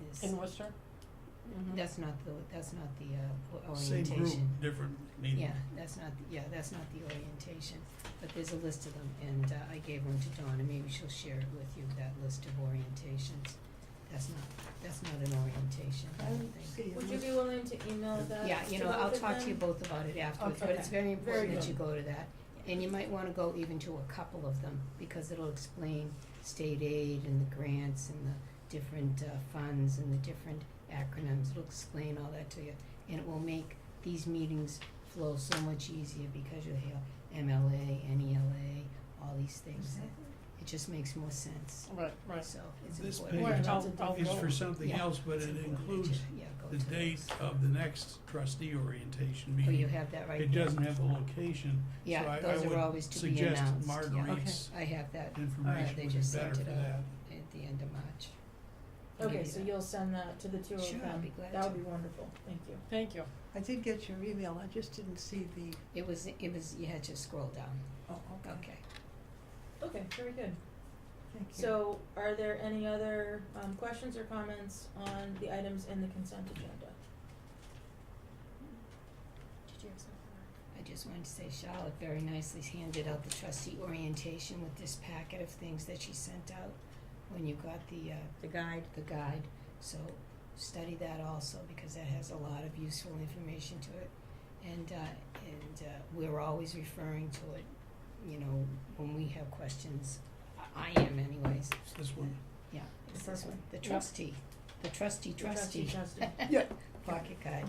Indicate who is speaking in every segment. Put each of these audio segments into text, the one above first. Speaker 1: Yes.
Speaker 2: in Worcester?
Speaker 1: That's not the, that's not the uh, o-
Speaker 3: Same
Speaker 1: orientation.
Speaker 3: group, different meeting.
Speaker 1: Yeah, that's not, the- yeah, that's not the orientation, but there's a list of them, and uh, I gave one to Dawn, and maybe she'll share it with you, that list of orientations. That's not, that's not an orientation, I don't think.
Speaker 4: Would you be willing to email that?
Speaker 1: Yeah, you know, I'll talk to you both about it afterwards, but it's
Speaker 4: Okay.
Speaker 1: very
Speaker 4: Very
Speaker 1: important that
Speaker 4: good.
Speaker 1: you go to that. And you might wanna go even to a couple of them, because it'll explain state aid and the grants and the different uh, funds and the different acronyms. It'll explain all that to you, and it will make these meetings flow so much easier because you'll hear MLA, NELA, E all these things. It just makes more sense,
Speaker 2: Right, right.
Speaker 1: so it's
Speaker 3: This
Speaker 1: important.
Speaker 2: Well,
Speaker 3: page
Speaker 2: I'll- I'll
Speaker 3: is
Speaker 2: go.
Speaker 3: for something
Speaker 1: Yeah.
Speaker 3: else, but
Speaker 1: It's
Speaker 3: it
Speaker 1: important that you-
Speaker 3: includes
Speaker 1: yeah, go
Speaker 3: the
Speaker 1: to
Speaker 3: date
Speaker 1: those.
Speaker 3: of the next trustee orientation
Speaker 1: Oh,
Speaker 3: meeting.
Speaker 1: you have that right
Speaker 3: It
Speaker 1: there.
Speaker 3: doesn't have the location, so
Speaker 1: Yeah,
Speaker 3: I,
Speaker 1: those
Speaker 3: I
Speaker 1: are
Speaker 3: would
Speaker 1: always to be
Speaker 3: suggest
Speaker 1: announced, yeah.
Speaker 3: Marguerite's
Speaker 1: I have that Yeah,
Speaker 3: information
Speaker 1: they
Speaker 3: would be
Speaker 1: just
Speaker 3: better
Speaker 1: sent
Speaker 3: for
Speaker 1: it
Speaker 3: that.
Speaker 1: out at the end of March.
Speaker 4: Okay,
Speaker 1: Maybe
Speaker 4: so
Speaker 1: that-
Speaker 4: you'll send that to the two of them?
Speaker 1: Sure, I'll be glad
Speaker 4: That
Speaker 1: to.
Speaker 4: would be wonderful, thank you.
Speaker 2: Thank you.
Speaker 5: I did get your email, I just didn't see the,
Speaker 1: It was, it was, you had to scroll down,
Speaker 5: oh, okay,
Speaker 1: okay.
Speaker 4: Okay, very good.
Speaker 5: thank you.
Speaker 4: So are there any other um questions or comments on the items in the consent agenda?
Speaker 1: Did you have something? I just wanted to say Charlotte very nicely handed out the trustee orientation with this packet of things that she sent out when you got the, uh,
Speaker 2: The guide.
Speaker 1: the guide, so study that also because that has a lot of useful information to it. And uh and uh we're always referring to it, you know, when we have questions, I I am anyways,
Speaker 3: It's this one,
Speaker 1: yeah, it's
Speaker 4: The
Speaker 1: this
Speaker 4: first
Speaker 1: one, the
Speaker 4: Yep.
Speaker 1: trustee, the trustee
Speaker 4: The trustee
Speaker 1: trustee.
Speaker 4: trustee.
Speaker 3: Yeah.
Speaker 1: Pocket guide,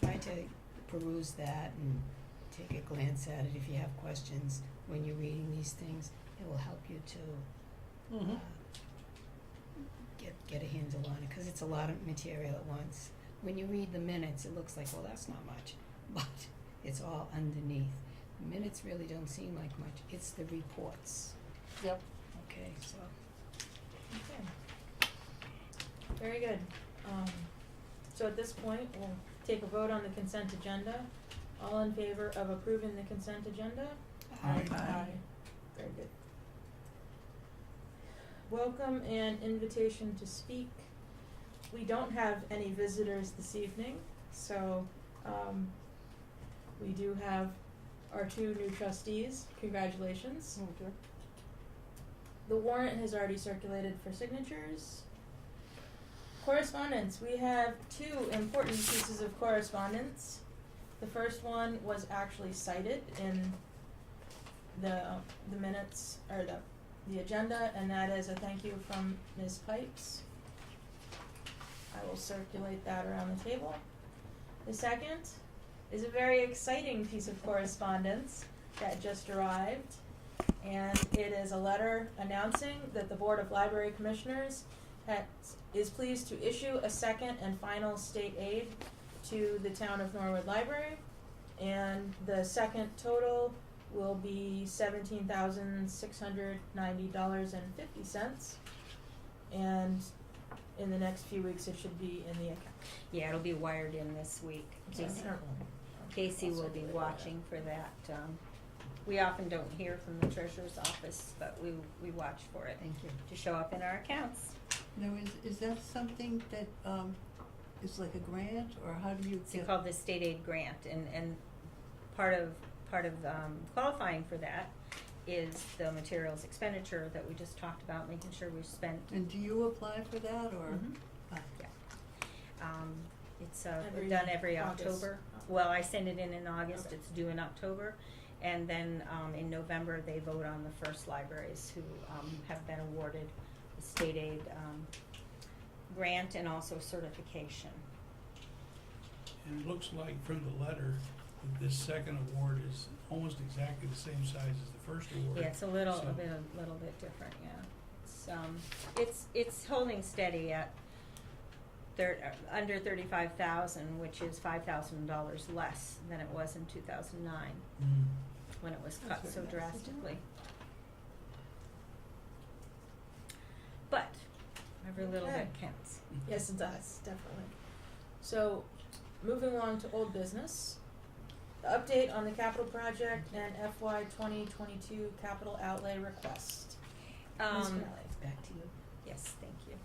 Speaker 1: try to peruse that and take a glance at it if you have questions when you're reading these things, it will help you to
Speaker 2: Mm-hmm.
Speaker 1: get get a handle on it because it's a lot of material at once. When you read the minutes, it looks like well that's not much, but it's all underneath. Minutes really don't seem like much. It's the reports.
Speaker 2: Yep.
Speaker 1: Okay, so
Speaker 4: Okay. Very good. Um, so at this point, we'll take a vote on the consent agenda. All in favor of approving the consent agenda?
Speaker 3: Aye.
Speaker 4: Very good. Welcome and invitation to speak. We don't have any visitors this evening, so, um, we do have our two new trustees. Congratulations. The warrant has already circulated for signatures. Correspondence, we have two important pieces of correspondence. The first one was actually cited in the, the minutes, or the, the agenda, and that is a thank you from Ms. Pipes. I will circulate that around the table. The second is a very exciting piece of correspondence that just arrived and it is a letter announcing that the Board of Library Commissioners ha- is pleased to issue a second and final state aid to the town of Norwood Library. And the second total will be seventeen thousand six hundred ninety dollars and fifty cents. And in the next few weeks, it should be in the account.
Speaker 6: Yeah, it'll be wired in this week. Casey- Casey will be watching for that. Um, we often don't hear from the treasurer's office, but we, we watch for it
Speaker 1: thank you.
Speaker 6: to show up in our accounts.
Speaker 5: Now, is, is that something that, um, is like a grant, or how do you
Speaker 6: It's
Speaker 5: get?
Speaker 6: called the state aid grant and, and part of, part of, um, qualifying for that is the materials expenditure that we just talked about, making sure we spent.
Speaker 5: And do you apply for that, or?
Speaker 6: Mhm.
Speaker 5: Ah,
Speaker 6: Yeah. Um, it's, uh,
Speaker 4: Every
Speaker 6: done every
Speaker 4: August.
Speaker 6: October. Well, I send it in in August,
Speaker 4: Okay.
Speaker 6: it's due in October. And then, um, in November, they vote on the first libraries who, um, have been awarded the state aid, um, grant and also certification.
Speaker 3: and it looks like from the letter that this second award is almost exactly the same size as the first award.
Speaker 6: Yeah, it's a little,
Speaker 3: So-
Speaker 6: a bit, a little bit different, yeah. It's, um, it's, it's holding steady at thir- uh, under thirty-five thousand, which is five thousand dollars less than it was in two thousand nine,
Speaker 3: Mm.
Speaker 6: when it was
Speaker 5: That's
Speaker 6: cut so
Speaker 5: very nice of them.
Speaker 6: drastically. But, every little
Speaker 4: Okay.
Speaker 6: bit counts.
Speaker 4: Yes, it does, definitely. So, moving along to old business. The update on the capital project and FY twenty twenty-two capital outlay request. Ms.
Speaker 6: Um,
Speaker 4: Crowley.
Speaker 1: It's back to you.
Speaker 6: yes, thank you.